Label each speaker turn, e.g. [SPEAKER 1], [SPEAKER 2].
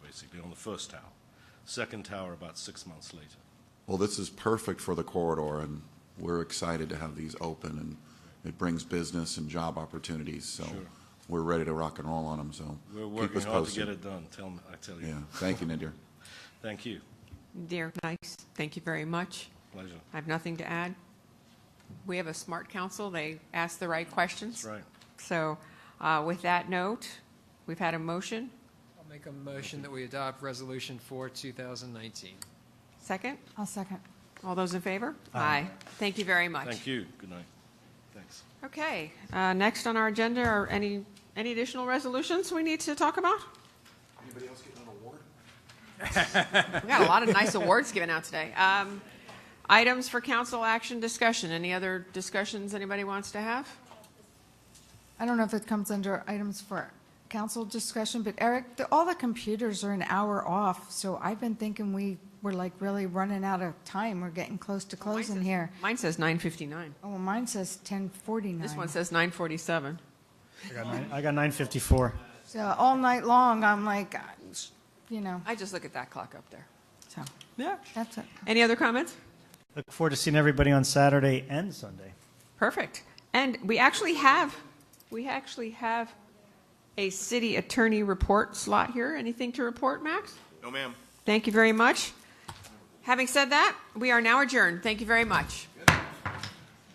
[SPEAKER 1] basically, on the first tower. Second tower about six months later.
[SPEAKER 2] Well, this is perfect for the corridor, and we're excited to have these open, and it brings business and job opportunities, so
[SPEAKER 1] Sure.
[SPEAKER 2] we're ready to rock and roll on them, so
[SPEAKER 1] We're
[SPEAKER 2] keep
[SPEAKER 1] working
[SPEAKER 2] us
[SPEAKER 1] hard to get
[SPEAKER 2] posted.
[SPEAKER 1] it done, tell me, I tell
[SPEAKER 2] Yeah,
[SPEAKER 1] you.
[SPEAKER 2] thank you, Nadir.
[SPEAKER 1] Thank you,
[SPEAKER 3] Dear, nice. Thank you very much.
[SPEAKER 1] pleasure.
[SPEAKER 3] I have nothing to add. We have a smart council. They ask the right questions.
[SPEAKER 1] That's right.
[SPEAKER 3] So uh, with that note, we've had a motion.
[SPEAKER 4] I'll make a motion that we adopt Resolution 4, 2019.
[SPEAKER 3] Second?
[SPEAKER 5] I'll second.
[SPEAKER 3] All those in favor? Aye. Thank you very much.
[SPEAKER 1] Thank you, good night. Thanks.
[SPEAKER 3] Okay, uh, next on our agenda are any, any additional resolutions we need to talk about?
[SPEAKER 2] Anybody else getting an award?
[SPEAKER 3] We got a lot of nice awards given out today. Um, Items for council action discussion. Any other discussions anybody wants to have?
[SPEAKER 5] I don't know if it comes under items for council discussion, but Eric, the- all the computers are an hour off, so I've been thinking we were like really running out of time. We're getting close to closing here.
[SPEAKER 3] Mine says 9:59.
[SPEAKER 5] Oh, well, mine says 10:49.
[SPEAKER 3] This one says 9:47.
[SPEAKER 6] I got nine- I got 954.
[SPEAKER 5] So all night long, I'm like, uh, you know,
[SPEAKER 3] I just look at that clock up there.
[SPEAKER 5] so
[SPEAKER 3] Yeah.
[SPEAKER 5] that's it.
[SPEAKER 3] Any other comments?
[SPEAKER 6] Look forward to seeing everybody on Saturday and Sunday.
[SPEAKER 3] Perfect. And we actually have, we actually have a city attorney report slot here. Anything to report, Max?
[SPEAKER 7] No, ma'am.
[SPEAKER 3] Thank you very much. Having said that, we are now adjourned. Thank you very much.